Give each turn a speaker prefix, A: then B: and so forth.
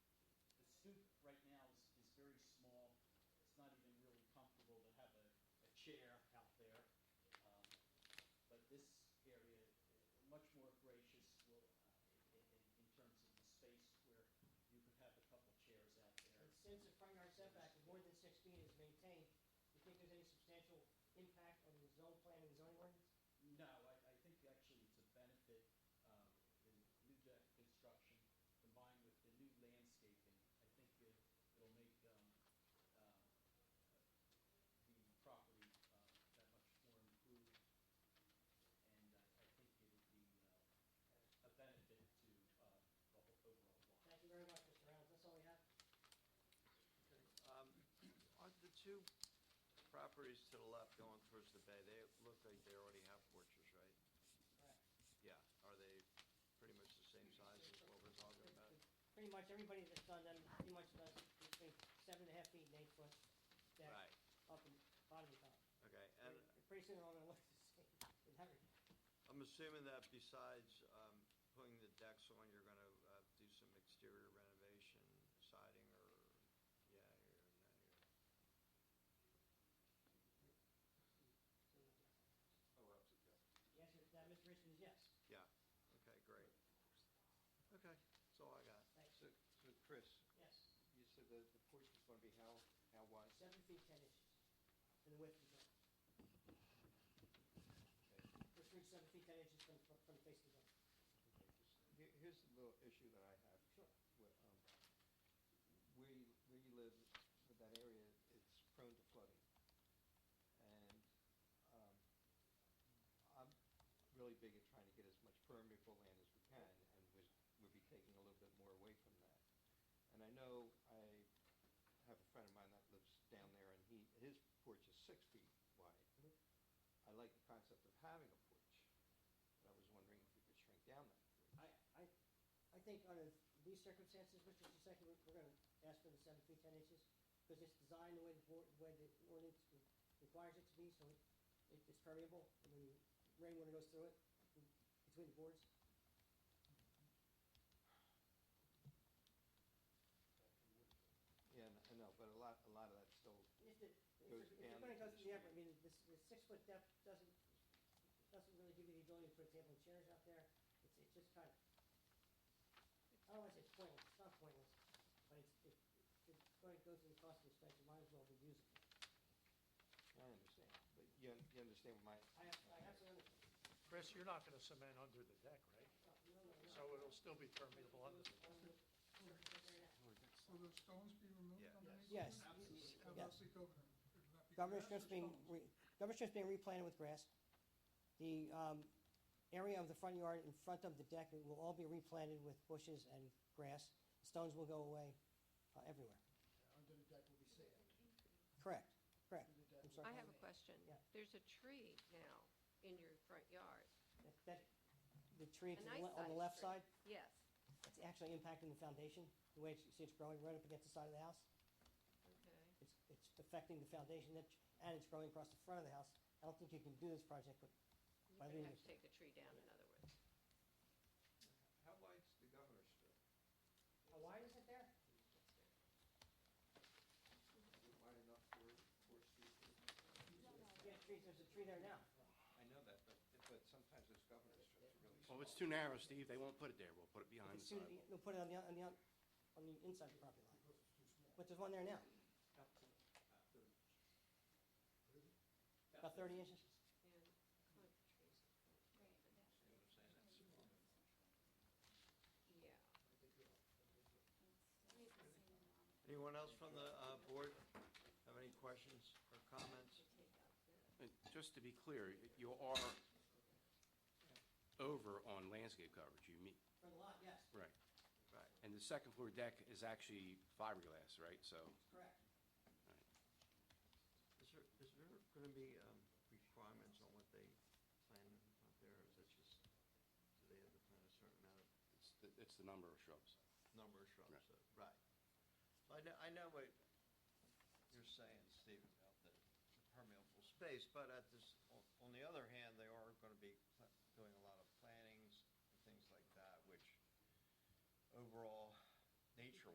A: chair out there. Um, But this area, uh, much more gracious will, uh, in, in- in terms of the space where you could have a couple chairs out there.
B: And Since the front yard setback of more than six feet is maintained, do you think there's any substantial impact on the zone plan and zoning ordinance?
A: No, I, I think actually it's a benefit, um, in new deck construction combined with the new landscaping. I think it, it'll make, um, um, the property, uh, that much more improved. And I, I think it'll be, uh, a benefit to, uh, the whole overall block.
B: Thank you very much, Mr. Reynolds, that's all we have.
C: Um, On the two properties to the left going towards the bay, they look like they already have porches, right?
B: Correct.
C: Yeah, are they pretty much the same size as what we're talking about?
B: Pretty much everybody that's done them, pretty much does between seven and a half feet and eight foot deck,
C: Right,
B: up and bottom and top.
C: okay, and uh,
B: Pretty- Pretty soon, all gonna look the same, in that regard.
C: I'm assuming that besides um, putting the decks on, you're gonna uh, do some exterior renovation, siding or, yeah, or,
D: Oh, absolutely, yes.
B: The answer to that, Mr. Richmond, is yes,
C: yeah, okay, great. Okay, that's all I got.
B: thanks,
D: So, so Chris,
B: yes.
D: you said the, the porch is gonna be how, how wide?
B: Seven feet, ten inches, and the width of the Which means
D: Okay.
B: seven feet, ten inches from, from- from face to zone.
D: Here, here's the little issue that I have.
B: Sure.
D: Where, um, where you, where you live, with that area, it's prone to flooding. And, um, I'm really big at trying to get as much permeable land as we can, and we, we'd be taking a little bit more away from that. And I know I have a friend of mine that lives down there, and he, his porch is six feet wide.
B: Mhm.
D: I like the concept of having a porch, but I was wondering if we could shrink down that porch.
B: I, I, I think under these circumstances, Mr. Shisekki, we're, we're gonna ask for the seven feet, ten inches, because it's designed the way the board, the way the ordinance re- requires it to be, so it, it's permeable, and when rainwater goes through it, between the boards.
D: Yeah, n- I know, but a lot, a lot of that's still,
B: It's the,
D: Goes
B: it's, it's
D: down
B: gonna go
D: into the
B: through the effort, I
D: street.
B: mean, this, the six foot depth doesn't, doesn't really give you the ability, for example, chairs out there, it's, it's just kind of, I don't wanna say it's pointless, it's not pointless, but it's, it, it's gonna go through the cost of the space, you might as well be using it.
D: I understand, but you, un- you understand my.
B: I have, I have to understand.
E: Chris, you're not going to cement under the deck, right?
B: No, no, no, no.
E: So it'll still be permeable under the deck.
F: Will the stones be removed
C: Yeah.
F: underneath?
B: Yes,
F: it?
A: Absolutely.
F: How
B: yes.
F: about the governor? It'll not be
B: Governor's
F: grass or
B: Strip's being,
F: stones?
B: re- Governor's Strip's being replanted with grass. The, um, area of the front yard in front of the deck will all be replanted with bushes and grass. Stones will go away, uh, everywhere.
G: under the deck will be sand.
B: Correct, correct.
G: Under the deck
B: I'm
G: will
B: sorry.
H: I have a question.
B: Yeah.
H: There's a tree now in your front yard.
B: That- That, the tree
H: A
B: to the
H: nice
B: le- on the
H: sized
B: left
H: tree.
B: side,
H: Yes.
B: it's actually impacting the foundation, the way it's, you see it's growing right up against the side of the house.
H: Okay.
B: It's, it's affecting the foundation that- and it's growing across the front of the house. I don't think you can do this project with By
H: You're gonna
B: leaving-
H: have to take the tree down, in other words.
D: How wide's the governor's strip?
B: How wide is it there?
D: Is it wide enough for, for street?
B: Yeah, trees, there's a tree there now.
D: I know that, but, but sometimes those governor's strips are really small.
I: Well, it's too narrow, Steve, they won't put it there, we'll put it behind the
B: It's soon-
I: sidewalk.
B: They'll put it on the, on the, on the inside of the property line. But there's one there now,
D: Uh,
B: about thirty inches.
H: And kind of trees. Yeah.
C: Anyone else from the uh, board have any questions or comments?
I: And just to be clear, you are over on landscape coverage, you mean,
B: For the lot, yes,
I: right.
C: Right.
I: And the second floor deck is actually fiberglass, right, so,
B: correct.
I: right.
C: Is there, is there gonna be, um, requirements on what they plan up there, or is it just, do they have to plant a certain amount of
I: it's, the- it's the number of shrubs.
C: number of shrubs?
I: Right.
C: So- Right. So I know, I know what you're saying, Steve, about the the permeable space, but at this, on- on the other hand, they are gonna be